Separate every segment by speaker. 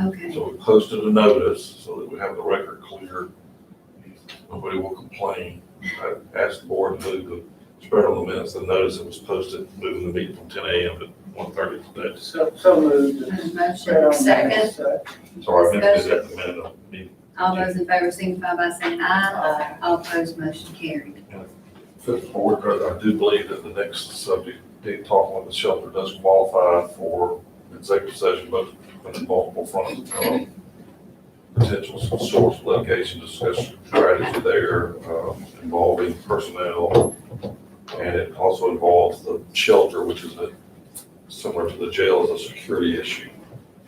Speaker 1: Okay,
Speaker 2: So we posted a notice so that we have the record clear. Nobody will complain. I asked the board to move the spread on the minutes, the notice that was posted, moving the meeting from ten AM to 1:30 today.
Speaker 3: So, so moved. uh,
Speaker 1: There's a
Speaker 3: Spread
Speaker 1: motion,
Speaker 3: on that,
Speaker 1: second,
Speaker 3: so.
Speaker 2: Sorry, I meant to do that in the minute of the meeting.
Speaker 1: all those in favor signify by saying aye, all opposed, motion carried.
Speaker 2: Fifth board, I I do believe that the next subject, they talk about the shelter does qualify for executive session, but in multiple fronts. um, Potential source location discussion strategy there um, involving personnel. And it also involves the shelter, which is a, similar to the jail, is a security issue.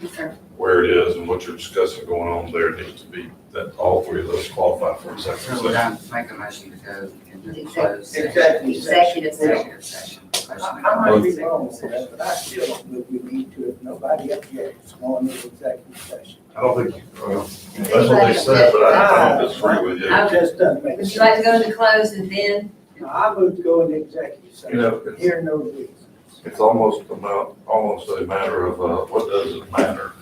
Speaker 1: Yes, sir.
Speaker 2: Where it is and what you're discussing going on there needs to be, that all three of those qualify for executive
Speaker 4: So
Speaker 2: session.
Speaker 4: would I make a motion to go into closed session?
Speaker 3: Exactly.
Speaker 1: Executive session.
Speaker 4: Executive session.
Speaker 3: I
Speaker 4: Question.
Speaker 3: I might be wrong with that, but I still don't think we need to, if nobody objects, go into executive session.
Speaker 2: I don't think, well, that's what they said, but I don't disagree with you.
Speaker 1: I-
Speaker 3: It just doesn't make
Speaker 1: Would
Speaker 3: sense.
Speaker 1: you like to go into close and then,
Speaker 3: No, I would go into executive
Speaker 2: You know,
Speaker 3: session,
Speaker 2: it's-
Speaker 3: hear no reasons.
Speaker 2: It's almost about, almost a matter of, uh, what does it matter?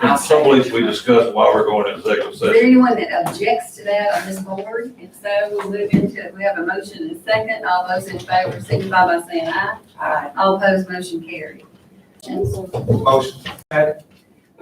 Speaker 2: In some ways, we discuss why we're going to executive
Speaker 1: is there
Speaker 2: session.
Speaker 1: anyone that objects to that on this board? If so, we'll move into, we have a motion and a second, all those in favor signify by saying aye,
Speaker 3: Aye.
Speaker 1: all opposed, motion carried.
Speaker 4: Motion.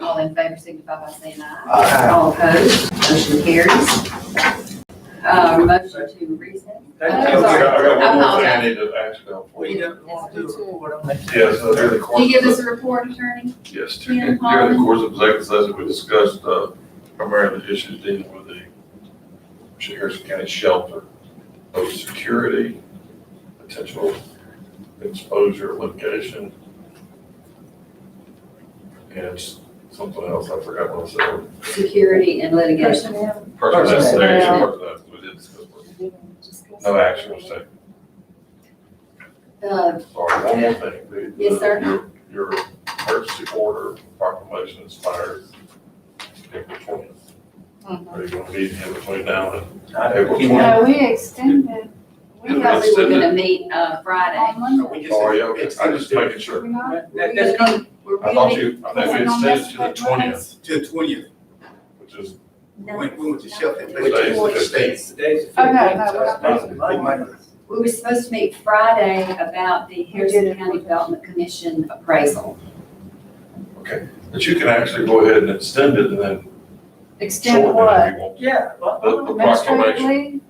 Speaker 1: All in favor signify by saying aye,
Speaker 3: Aye.
Speaker 1: all opposed, motion carries. Uh, motion to recess.
Speaker 3: Thank
Speaker 1: I'm
Speaker 2: I
Speaker 3: you.
Speaker 1: sorry.
Speaker 2: got one more thing
Speaker 1: I'm
Speaker 2: I need to ask about.
Speaker 3: We don't want to record on that.
Speaker 2: Yes, uh, during the
Speaker 1: Do
Speaker 2: course.
Speaker 1: you give us
Speaker 2: of-
Speaker 1: a report, attorney?
Speaker 2: Yes, during during the course of executive session, we discussed, uh, primarily the issues dealing with the Harrison County shelter, of security, potential exposure location. And something else, I forgot what I said.
Speaker 1: Security and litigation.
Speaker 5: Personnel.
Speaker 2: Personnel, there you
Speaker 1: Personnel.
Speaker 2: go, personnel, we did discuss. personnel. No action was taken.
Speaker 1: Uh,
Speaker 2: Sorry, one more thing. The-
Speaker 1: Yes, sir.
Speaker 2: your- Your emergency order proclamation expires April twentieth.
Speaker 1: Mm-hmm.
Speaker 5: Mhm.
Speaker 2: Are you gonna meet him between now and
Speaker 3: I
Speaker 2: April
Speaker 3: don't-
Speaker 2: twentieth?
Speaker 5: No, we extended,
Speaker 1: We thought we were gonna meet, uh,
Speaker 5: on
Speaker 1: Friday.
Speaker 5: Monday.
Speaker 2: Oh, yeah, okay. I'm just making
Speaker 5: We're
Speaker 2: sure.
Speaker 5: not,
Speaker 3: That- that- that's gonna-
Speaker 1: We're
Speaker 2: I thought
Speaker 1: really.
Speaker 2: you, I think we extended to the twentieth,
Speaker 6: To the twentieth,
Speaker 2: which is,
Speaker 1: No.
Speaker 6: when, when was the shelter?
Speaker 2: Which is what it states.
Speaker 3: Today's the
Speaker 5: Oh, no, no,
Speaker 3: 15th, so
Speaker 5: we're
Speaker 3: it's
Speaker 5: not-
Speaker 3: not the Monday.
Speaker 1: We were supposed to meet Friday about the Harrison County Development Commission appraisal.
Speaker 2: but you can actually go ahead and extend it and then
Speaker 5: extend
Speaker 2: shorten it
Speaker 5: what?
Speaker 2: if you want.
Speaker 3: Yeah, well,
Speaker 2: The, the proclamation,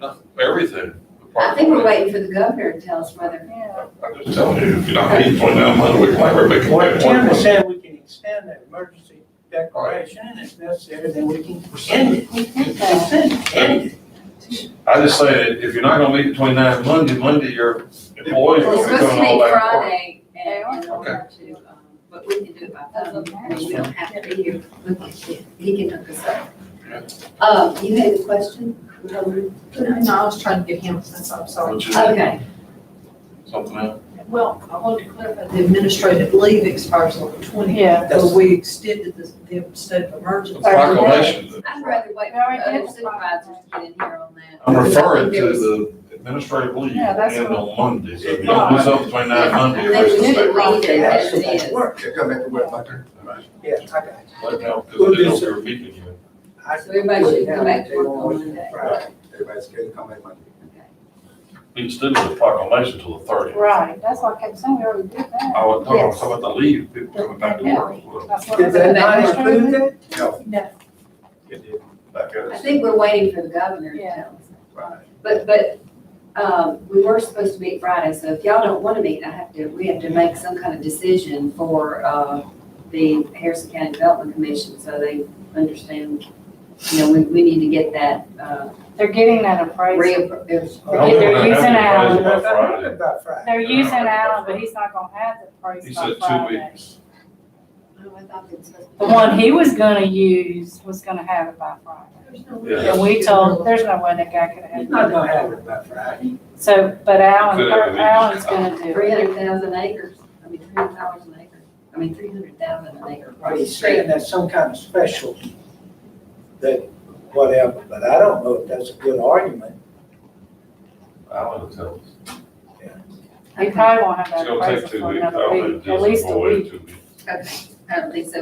Speaker 2: uh,
Speaker 5: Administratively?
Speaker 2: everything. the
Speaker 1: I think we're
Speaker 2: proclamation.
Speaker 1: waiting for the governor to tell us whether,
Speaker 5: Yeah.
Speaker 2: I'm just telling you, if you're not meeting between now and Monday, we might make it.
Speaker 3: what Tim is saying, we can extend that emergency declaration, and if necessary, then we can end it.
Speaker 5: We did that.
Speaker 3: Extend it, end it.
Speaker 2: I just say that if you're not gonna meet between nine and Monday, Monday, your employees
Speaker 1: we're
Speaker 2: will be
Speaker 1: supposed to
Speaker 2: doing all
Speaker 1: meet
Speaker 2: that work.
Speaker 1: Friday and, in order to, um, but we can do it by phone. I mean, we don't have to be here. We can- He can hook us up. Uh, you had a question?
Speaker 5: No, I was trying to get him, since I'm sorry.
Speaker 2: Which is
Speaker 1: Okay,
Speaker 2: something else.
Speaker 7: Well, I wanted to clarify, the administrative leave expires on the twentieth,
Speaker 5: Yeah.
Speaker 7: so we extended the, the state of emergency.
Speaker 2: The proclamation.
Speaker 1: I'd rather wait for
Speaker 5: No, I
Speaker 1: other
Speaker 5: did.
Speaker 1: supervisors to get in here on that.
Speaker 2: I'm referring
Speaker 1: There
Speaker 2: to
Speaker 1: was-
Speaker 2: the administrative leave
Speaker 5: Yeah, that's
Speaker 2: and
Speaker 5: what- Oh.
Speaker 2: on Monday, so if you don't do something between nine and Monday,
Speaker 1: I
Speaker 2: it's
Speaker 1: think
Speaker 2: the
Speaker 1: we
Speaker 2: state.
Speaker 1: should leave it as it
Speaker 3: That's
Speaker 1: is.
Speaker 3: what
Speaker 6: Okay, come back to work, my turn.
Speaker 3: Yeah, I got you.
Speaker 2: Right now, because they don't do a meeting yet.
Speaker 3: I-
Speaker 1: So everybody should go back to work on Monday.
Speaker 3: Right.
Speaker 6: Everybody's scared to come back Monday.
Speaker 2: We extended the proclamation till the thirtieth.
Speaker 5: Right, that's what I kept saying, we already did that.
Speaker 2: I was talking
Speaker 5: Yes.
Speaker 2: about the leave, people coming back to work. Well,
Speaker 5: That's what I
Speaker 3: Did that
Speaker 5: said.
Speaker 3: not include that?
Speaker 6: No,
Speaker 5: No,
Speaker 6: it did,
Speaker 2: That
Speaker 1: I
Speaker 2: goes.
Speaker 1: think we're waiting for the governor to
Speaker 5: Yeah.
Speaker 1: tell us.
Speaker 6: right.
Speaker 1: But, but, um, we were supposed to meet Friday, so if y'all don't wanna meet, I have to, we have to make some kind of decision for, uh, the Harrison County Development Commission, so they understand, you know, we, we need to get that, uh,
Speaker 5: they're getting that appraisal.
Speaker 1: reapproved.
Speaker 2: I don't think we're
Speaker 5: They're
Speaker 2: gonna have
Speaker 5: using
Speaker 2: the
Speaker 5: Alan.
Speaker 2: appraisal by Friday.
Speaker 3: About Friday.
Speaker 5: They're using Alan, but he's not gonna have the appraisal
Speaker 2: He
Speaker 5: by
Speaker 2: said two
Speaker 5: Friday.
Speaker 2: weeks.
Speaker 5: The one he was gonna use was gonna have it by Friday.
Speaker 2: Yeah.
Speaker 5: And we told, there's no way that guy could have
Speaker 3: He's
Speaker 5: it.
Speaker 3: not gonna have it by Friday.
Speaker 5: So, but Alan,
Speaker 2: Could have, we
Speaker 5: Alan's
Speaker 2: just-
Speaker 5: gonna do it.
Speaker 1: Three hundred thousand acres, I mean, three hundred dollars an acre, I mean, three hundred thousand an acre.
Speaker 3: Are you saying that's some kind of special that whatever, but I don't know if that's a good argument.
Speaker 2: Alan will tell us.
Speaker 5: He probably won't have
Speaker 2: It's
Speaker 5: that
Speaker 2: gonna take
Speaker 5: appraisal
Speaker 2: two
Speaker 5: for
Speaker 2: weeks. I
Speaker 5: another
Speaker 2: don't
Speaker 5: week,
Speaker 2: think
Speaker 5: at
Speaker 2: Disney
Speaker 5: least a
Speaker 2: will wait
Speaker 5: week.
Speaker 2: two weeks.
Speaker 1: Okay, I don't think so